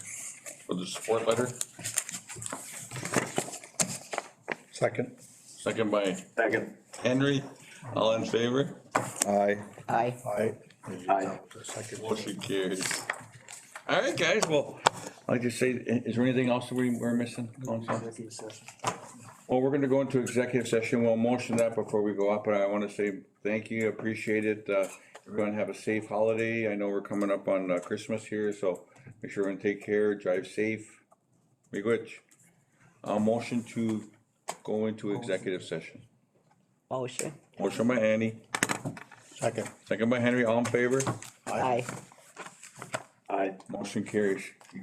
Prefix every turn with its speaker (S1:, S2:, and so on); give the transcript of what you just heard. S1: for the support letter,
S2: Second.
S1: second by
S3: Second.
S1: Henry. All in favor?
S2: Aye.
S4: Aye.
S2: Aye.
S3: Aye.
S1: Motion carries. All right, guys, well, like I say, i- is there anything else that we, we're missing? Council? Well, we're gonna go into executive session. We'll motion that before we go up, but I wanna say thank you, appreciate it. Uh, Everyone have a safe holiday. I know we're coming up on uh, Christmas here, so make sure and take care, drive safe. Be good. Uh, motion to go into executive session.
S4: Motion.
S1: Motion by Annie,
S2: Second.
S1: second by Henry, all in favor?
S4: Aye.
S3: Aye.
S1: Motion carries.